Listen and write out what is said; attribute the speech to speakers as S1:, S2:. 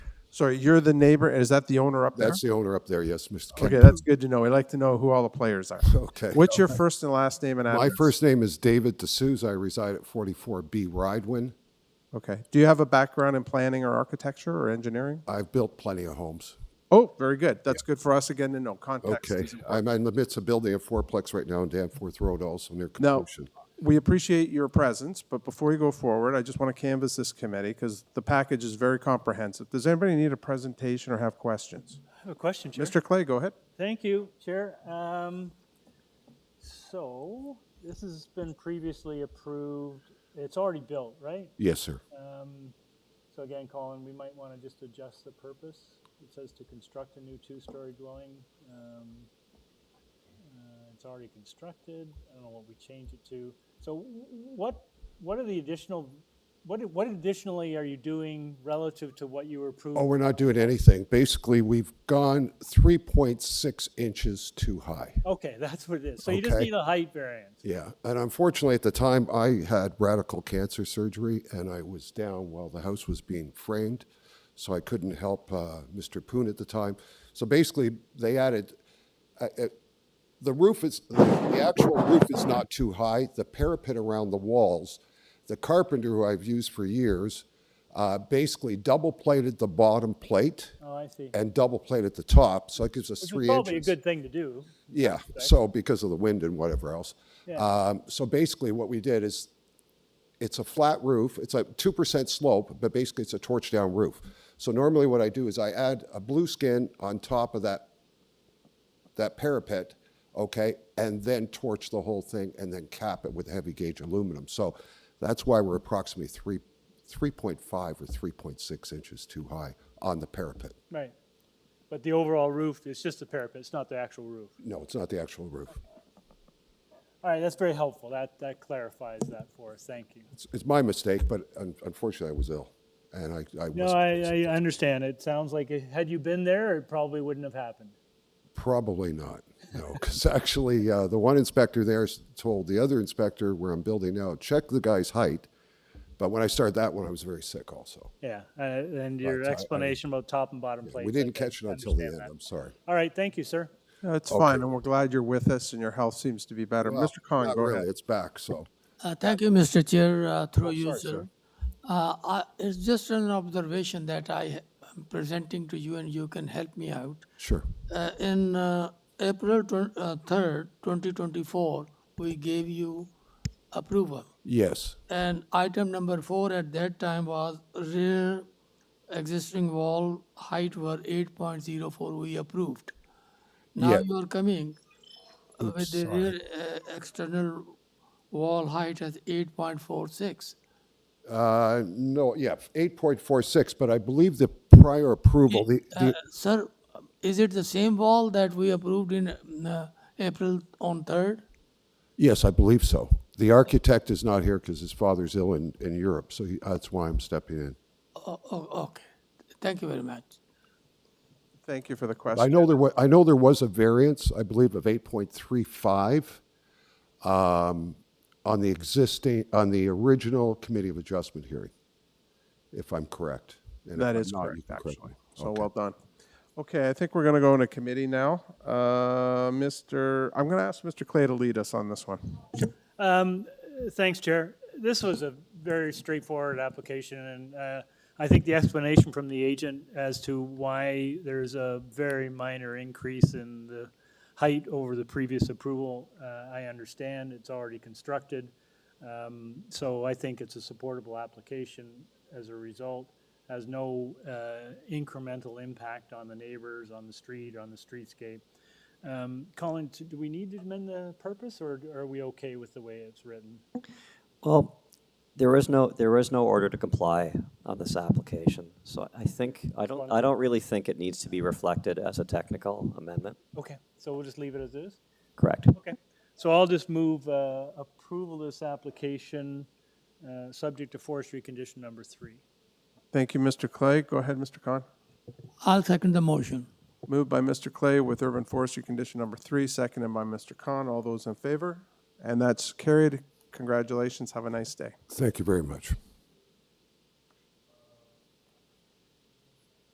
S1: Sorry, you're the neighbor, and is that the owner up there?
S2: That's the owner up there, yes, Mr.
S1: Okay,
S2: Kemp.
S1: that's good to know. We like to know who all the players are.
S2: Okay.
S1: What's your first and last name and
S2: My
S1: address?
S2: first name is David D'Souza. I reside at 44B Ridewin.
S1: Okay. Do you have a background in planning or architecture or engineering?
S2: I've built plenty of homes.
S1: Oh, very good. That's good for us again to know context.
S2: Okay,
S1: is-
S2: I'm in the midst of building a fourplex right now on Danforth Road, also near
S1: Now,
S2: completion.
S1: we appreciate your presence, but before you go forward, I just want to canvass this committee because the package is very comprehensive. Does anybody need a presentation or have questions?
S3: I have a question, Chair.
S1: Mr. Clay, go ahead.
S3: Thank you, Chair. Um, so this has been previously approved. It's already built, right?
S2: Yes, sir.
S3: Um, so again, Colin, we might want to just adjust the purpose. It says to construct a new two-story dwelling. Um, uh, it's already constructed. I don't know what we change it to. So w- what, what are the additional, what, what additionally are you doing relative to what you were approved?
S2: Oh, we're not doing anything. Basically, we've gone 3.6 inches too high.
S3: Okay, that's what it is. So you just
S2: Okay.
S3: need a height variance.
S2: Yeah, and unfortunately, at the time, I had radical cancer surgery, and I was down while the house was being framed, so I couldn't help uh, Mr. Poon at the time. So basically, they added, uh, uh, the roof is, the actual roof is not too high, the parapet around the walls, the carpenter who I've used for years, uh, basically double-plated the bottom plate
S3: Oh, I see.
S2: and double-plated the top, so it gives us
S3: Which
S2: three
S3: is
S2: inches.
S3: probably a good thing to do.
S2: Yeah, so because of the wind and whatever else.
S3: Yeah.
S2: Um, So basically, what we did is, it's a flat roof, it's a 2% slope, but basically it's a torch-down roof. So normally what I do is I add a blue skin on top of that, that parapet, okay? And then torch the whole thing and then cap it with heavy gauge aluminum. So that's why we're approximately three, 3.5 or 3.6 inches too high on the parapet.
S3: Right. But the overall roof is just the parapet, it's not the actual roof.
S2: No, it's not the actual roof.
S3: All right, that's very helpful. That, that clarifies that for us. Thank you.
S2: It's- It's my mistake, but un- unfortunately, I was ill, and I, I
S3: No,
S2: was
S3: I, I understand. It sounds like it- had you been there, it probably wouldn't have happened.
S2: probably not. No, because actually, uh, the one inspector there s- told the other inspector where I'm building now, check the guy's height. But when I started that one, I was very sick. Also,
S3: Yeah, uh, and
S2: Right,
S3: your
S2: so I- I-
S3: explanation about top and bottom plates.
S2: we
S3: I
S2: didn't
S3: can
S2: catch it until the end.
S3: understand that.
S2: I'm sorry.
S3: All right, thank you, sir.
S1: No, it's fine, and we're glad you're with us and your health seems to be better.
S2: Well,
S1: Mr. Khan,
S2: not
S1: Uh, go
S2: really.
S1: ahead.
S2: It's back. So
S4: Uh, Thank you, Mr. Chair, uh, through you,
S2: sorry,
S4: sir. Uh, I- It's just an observation that I am presenting to you, and you can help me out.
S2: sure.
S4: Uh, In uh, April twen- uh, 3rd, 2024, we gave you approval.
S2: Yes.
S4: And item number four at that time was rear existing wall height were 8.04, we approved. Now
S2: Yeah.
S4: you are coming with the rear uh, external wall height as 8.46.
S2: Uh, no. Yeah. Eight point four six. But I believe the prior approval. The, the,
S4: Uh, Sir, is it the same wall that we approved in uh, April on 3rd?
S2: yes, I believe so. The architect is not here because his father's ill in, in Europe, so he, that's why I'm stepping in.
S4: O- o- Okay, thank you very much.
S1: Thank you for the
S2: I
S1: question.
S2: know there was, I know there was a variance, I believe, of eight point three five um, on the existing, on the original Committee of Adjustment hearing, if I'm correct. And if
S1: That
S2: I'm
S1: is
S2: not, you
S1: correct,
S2: can correct
S1: actually.
S2: me.
S1: So well done. Okay, I think we're going to go into committee now. Uh, Mr., I'm going to ask Mr. Clay to lead us on this one.
S3: Um, Thanks, Chair. This was a very straightforward application, and uh, I think the explanation from the agent as to why there's a very minor increase in the height over the previous approval, uh, I understand, it's already constructed. Um, So I think it's a supportable application as a result, has no uh, incremental impact on the neighbors, on the street, on the streetscape. Um, Colin, t- do we need to amend the purpose, or are we okay with the way it's written?
S5: Well, there is no, there is no order to comply on this application, so I think, I don't, I don't really think it needs to be reflected as a technical amendment.
S3: Okay. So we'll just leave it as is?
S5: Correct.
S3: Okay. So I'll just move uh, approval of this application, uh, subject to forestry condition number three.
S1: Thank you, Mr. Clay. Go ahead, Mr. Khan.
S4: I'll second the motion.
S1: Moved by Mr. Clay with urban forestry condition number three, seconded by Mr. Khan. All those in favor? And that's carried. Congratulations. Have a nice day.
S2: Thank you very much.